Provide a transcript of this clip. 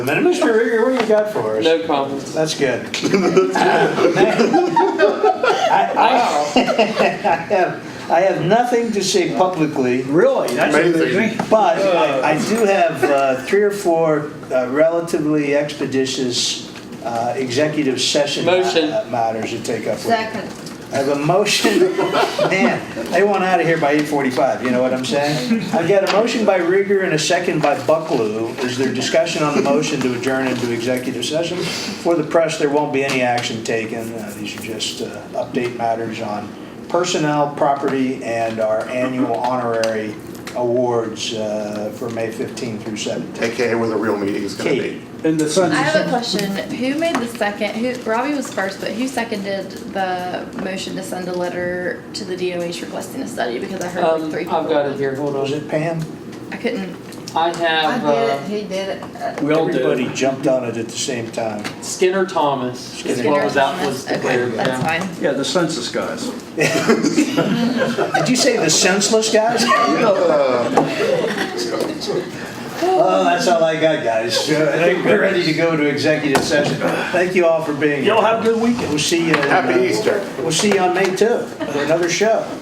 Mr. Rieger, what you got for us? No comments. That's good. Wow. I have, I have nothing to say publicly. Really? Amazing. But I I do have uh, three or four uh, relatively expeditious uh, executive session ma- Motion. matters to take up. with you. Second. I have a motion, man, they want out of here by 8:45, you know what I'm saying? I've got a motion by Rieger and a second by Bucklew. Is there discussion on the motion to adjourn into executive session? For the press, there won't be any action taken. Uh, These are just uh, update matters on personnel, property, and our annual honorary awards uh, for May 15 through 17. AKA where the real meeting is going to Katie, be. And the I sun's. have a question. Who made the second, who, Robbie was first, but who seconded the motion to send a letter to the DOH requesting a study? Because I heard Um, like three I've people. got it here, hold was on. it Pam? I couldn't. I have uh, he did it. We all Everybody do. jumped on it at the same time. Skinner Thomas is what was that was Okay, declared. that's yeah. fine. Yeah, the census guys. Did you say the senseless guys? Well, Oh, that's all I got, guys. Uh, I think We're ready to go to executive session. Thank you all for being here. Y'all have a good weekend. We'll see you. in, Happy uh, Easter. We'll see you on May 2 for another show.